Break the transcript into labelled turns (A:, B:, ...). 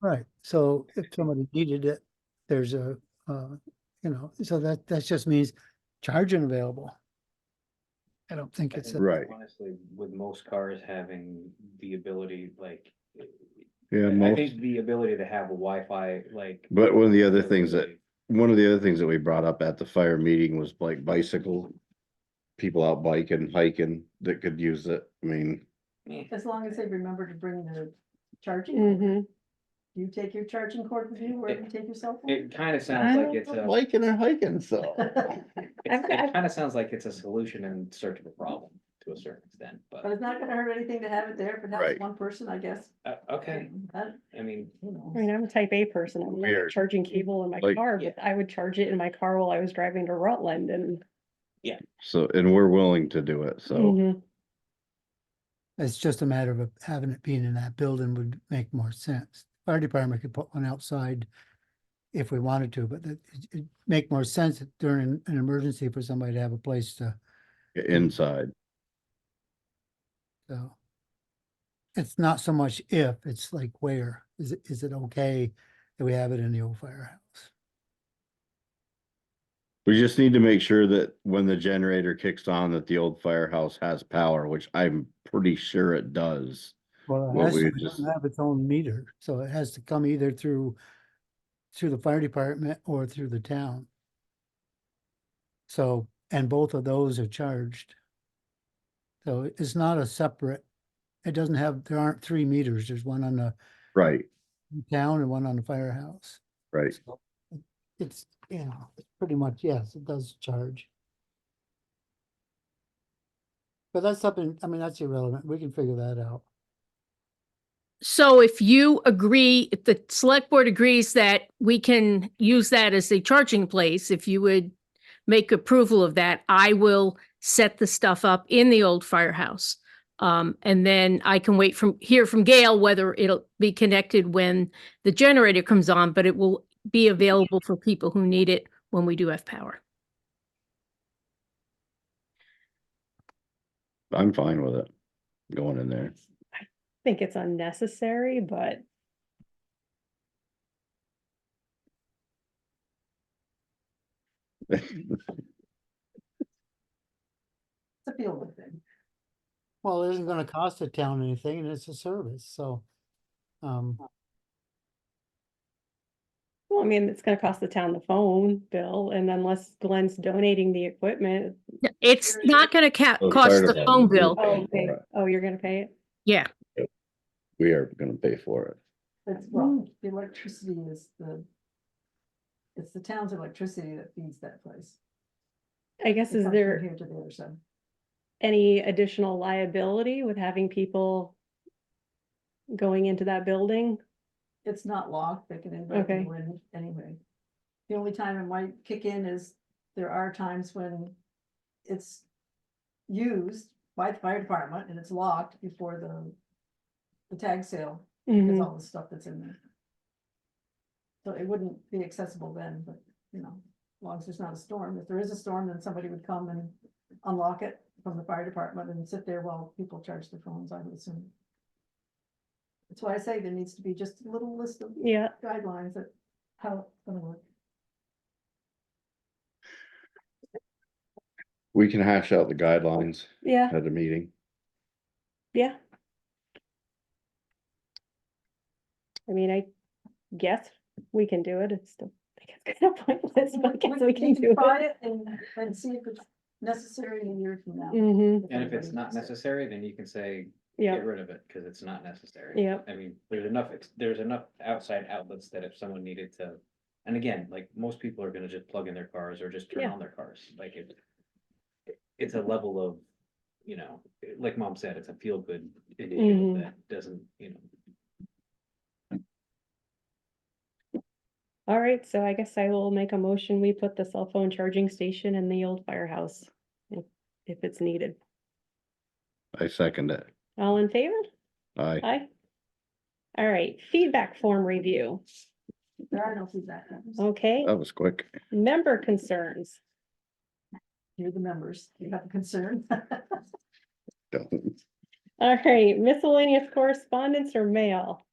A: Right, so if somebody needed it, there's a, uh, you know, so that, that just means charging available. I don't think it's, a-
B: Right.
C: Honestly, with most cars having the ability, like,
B: Yeah,
C: I I
B: most,
C: think the ability to have a Wi-Fi, like.
B: but one of the other things that, one of the other things that we brought up at the fire meeting was like bicycle. People out biking, hiking that could use it. I mean,
D: As long as they remember to bring the charging,
E: Mm-hmm.
D: you take your charging cord with you wherever you take your cell phone.
C: It kind of sounds like it's a,
B: biking or hiking, so.
D: But
C: it's-
E: I've- I've-
C: it kind of sounds like it's a solution in search of a problem to a certain extent, but,
D: it's not gonna hurt anything to have it there for
B: Right.
D: that one person, I guess.
C: uh, okay,
D: That,
C: I mean.
D: you
E: I
D: know.
E: mean, I'm a type A person. I'm like a
B: Weird.
E: charging cable in my
B: Like-
E: car, but I would charge it in my car while I was driving to Rutland and.
B: So, and we're willing to do it, so,
E: Mhm.
A: it's just a matter of having it being in that building would make more sense. Fire department could put one outside if we wanted to, but it, it'd make more sense during an emergency for somebody to have a place to,
B: inside,
A: so. It's not so much if, it's like where, is it, is it okay that we have it in the old firehouse?
B: we just need to make sure that when the generator kicks on, that the old firehouse has power, which I'm pretty sure it does.
A: Well, it
B: What
A: has
B: we
A: to
B: had just-
A: have its own meter, so it has to come either through, through the fire department or through the town. So, and both of those are charged. So it- it's not a separate, it doesn't have, there aren't three meters, there's one on the
B: Right,
A: town and one on the firehouse.
B: right.
A: So it- It's, you know, it's pretty much, yes, it does charge. But that's something, I mean, that's irrelevant, we can figure that out.
F: So if you agree, if the select board agrees that we can use that as a charging place, if you would make approval of that, I will set the stuff up in the old firehouse. Um, and then I can wait from, hear from Gail whether it'll be connected when the generator comes on, but it will be available for people who need it when we do have power.
B: I'm fine with it. Going in there.
E: Think it's unnecessary, but
D: It's a field thing.
A: Well, it isn't gonna cost the town anything and it's a service, so. Um,
E: well, I mean, it's gonna cost the town the phone bill and unless Glenn's donating the equipment.
F: No, It's
E: Sure.
F: not gonna ca-
B: Oh, the
F: cost
B: fire
F: the
B: department
F: phone
B: will
F: bill.
B: pay
E: Oh,
B: for
E: okay.
B: it.
E: Oh, you're gonna pay it?
F: Yeah,
B: We are gonna pay for it.
E: Mm.
D: It's, well, the electricity is the. It's the town's electricity that feeds that place.
E: I guess
D: It
E: is
D: comes from
E: there
D: Here to there, so.
E: any additional liability with having people going into that building?
D: It's not locked, they can invite
E: Okay.
D: you in anyway. The only time it might kick in is, there are times when it's used by the fire department and it's locked before the. The tag sale,
E: Mhm.
D: because all the stuff that's in there. So it wouldn't be accessible then, but, you know, as long as there's not a storm, if there is a storm, then somebody would come and unlock it from the fire department and sit there while people charge their phones, I would assume. That's why I say there needs to be just a little list of
E: Yeah,
D: guidelines that how it's gonna work.
B: We can hash out the guidelines
E: yeah,
B: at a meeting.
E: yeah. I mean, I guess we can do it. It's still, I think it's kind of pointless, but I guess we can
D: you
E: do
D: Try
E: it.
D: it and, and see if it's necessary in a year from now.
E: hmm
C: And if it's
D: everybody
C: not
D: uses it.
C: necessary, then you can say,
E: yeah,
C: get rid of it, because it's not necessary.
E: Yep.
C: I mean, there's enough, ex- there's enough outside outlets that if someone needed to, and again, like, most people are gonna just plug in their cars or just turn
E: Yeah.
C: on their cars, like it. It's a level of, you know, like mom said, it's a feel good initiative
E: Mhm.
C: that doesn't, you know.
E: all right, so I guess I will make a motion. We put the cell phone charging station in the old firehouse. If, if it's needed.
B: I second it.
E: All in favor?
B: Aye.
E: Aye. All right, feedback form review.
D: There are no feedback. forms.
E: Okay,
B: That was quick.
E: member concerns.
D: You're the members, you have a concern.
B: Don't-
E: All right, miscellaneous correspondence or mail?